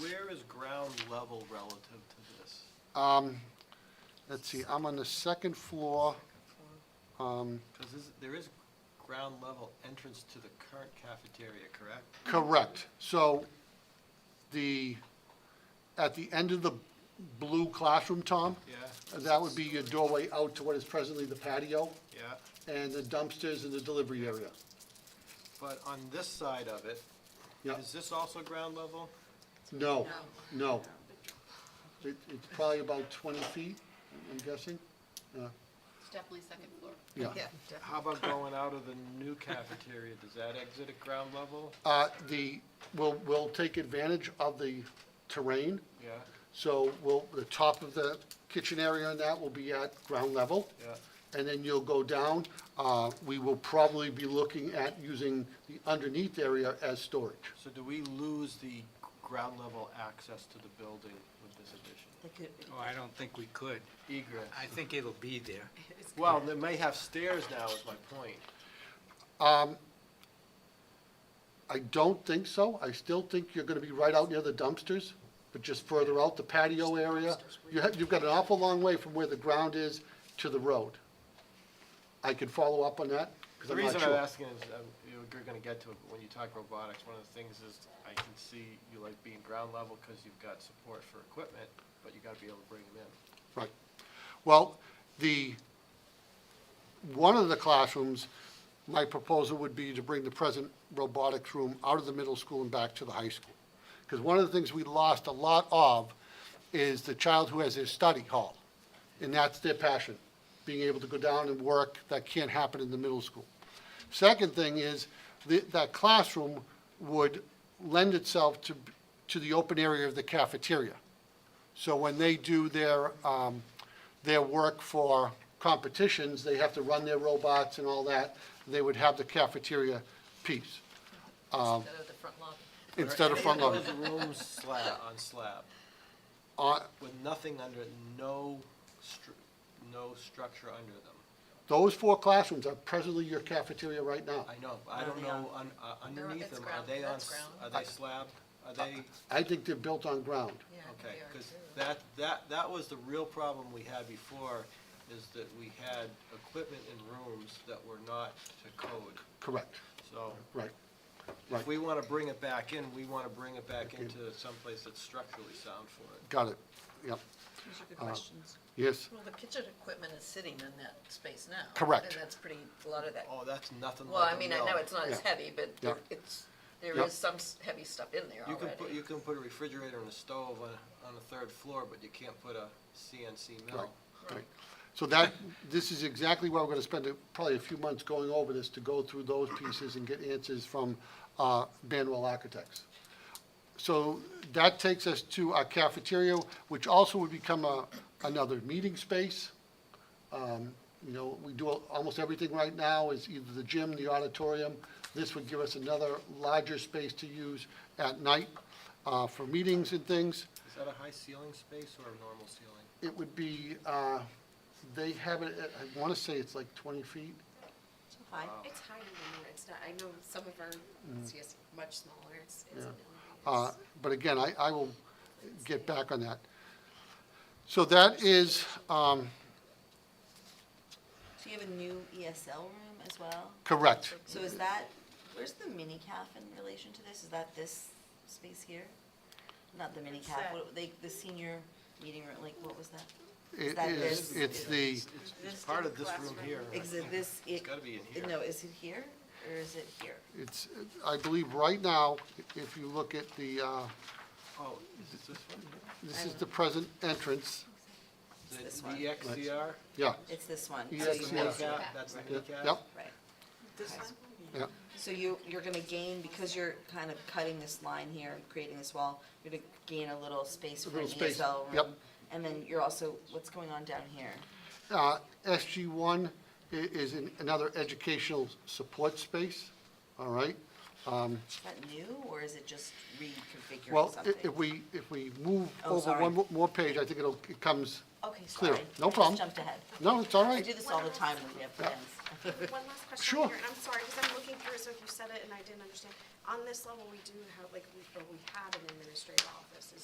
level relative to this? Um, let's see, I'm on the second floor. Um, Because there is ground level entrance to the current cafeteria, correct? correct. So the, at the end of the blue classroom, Tom, Yeah, that would be your doorway out to what is presently the patio yeah. and the dumpsters and the delivery area. But on this side of it, Yeah. is this also ground level? No, no. It, it's probably about twenty feet, I'm guessing. Uh, It's definitely second floor. Yeah. How about going out of the new cafeteria? Does that exit at ground level? Uh, the, we'll, we'll take advantage of the terrain. Yeah, So we'll, the top of the kitchen area on that will be at ground level. yeah. And then you'll go down. Uh, we will probably be looking at using the underneath area as storage. So do we lose the ground level access to the building with this addition? Oh, I don't think we could. Egress. I think it'll be there. Well, they may have stairs now is my point. I don't think so. I still think you're gonna be right out near the dumpsters, but just further out the patio area. You have, you've got an awful long way from where the ground is to the road. I could follow up on that, because The I'm not reason sure. I'm asking is, um, you- you're gonna get to it, but when you talk robotics, one of the things is, I can see you like being ground level because you've got support for equipment, but you gotta be able to bring them in. Right. Well, the, one of the classrooms, my proposal would be to bring the present robotics room out of the middle school and back to the high school. Because one of the things we lost a lot of is the child who has his study hall. And that's their passion, being able to go down and work. That can't happen in the middle school. Second thing is, th- that classroom would lend itself to, to the open area of the cafeteria. So when they do their, um, their work for competitions, they have to run their robots and all that, they would have the cafeteria piece Um, Instead of the front lobby. instead of front loading. Those rooms slab, on slab, Uh, with nothing under, it, no stru, no structure under them. Those four classrooms are presently your cafeteria right now. I know, but I don't know, un- uh, They're- underneath it's them, are ground- they on, that's s- ground. are they slab? Are they, I think they're built on ground. okay, because that, that, that was the real problem we had before, is that we had equipment in rooms that were not to code. Correct, So right. Right. if we want to bring it back in, we want to bring it back into someplace that's structurally sound for it. Got it. Yep, These are good uh, questions. yes. Well, the kitchen equipment is sitting in that space now. Correct. And that's pretty, a lot of that. Oh, that's nothing Well, like I a mean, I know mill. it's not as Yeah. heavy, but there- Yeah. it's, there Yeah. is some s- heavy stuff in there You can put, already. you can put a refrigerator and a stove on, on the third floor, but you can't put a CNC mill. Right, right. So that, this is exactly where we're gonna spend a- probably a few months going over this, to go through those pieces and get answers from uh, Banwell Architects. So that takes us to our cafeteria, which also would become a, another meeting space. Um, You know, we do, al- almost everything right now is either the gym, the auditorium. This would give us another larger space to use at night uh, for meetings and things. Is that a high ceiling space or a normal ceiling? It would be, uh, they have it, at- I want to say it's like 20 feet. Um, It's higher than that, it's not, I know some of our, it's yes, much smaller, it's, it's. an Mm. Uh, elevated. But again, I, I will get back on that. So that is um, So you have a new ESL room as well? correct. So Mm-hmm. is that, where's the mini calf in relation to this? Is that this space here? Not the mini calf, what, they, the senior meeting room, like, what was that? It that is, this? it's the, It's, it's- it's part of this room here. Is it this? It's gotta be in here. No, is it here, or is it here? it's, I believe right now, if you look at the, uh, Oh, is it this one? this is the present entrance. Is it this the one. EXCR? Yeah, It's this one. So Yes, you That's the yeah. want- kneecap, That's the yeah, kneecap? yep, Right. This one? yeah, So you, you're gonna gain, because you're kind of cutting this line here and creating this wall, you're gonna gain a little space A for an little space, ESL room. yep. And then you're also, what's going on down here? Uh, SG1 i- is an- another educational support space, all right? Is that new, or is it just reconfiguring Well, i- something? if we, if we move Oh, over one sorry. mo- more page, I think it'll, it comes, Okay, Clear. sorry. No I just problem. Jumped ahead. no, it's all I right. do this all the time when we have plans. One last Sure. question here, and I'm sorry, because I'm looking through, so if you said it and I didn't understand, on this level, we do have, like, we, or we have an administrative office, is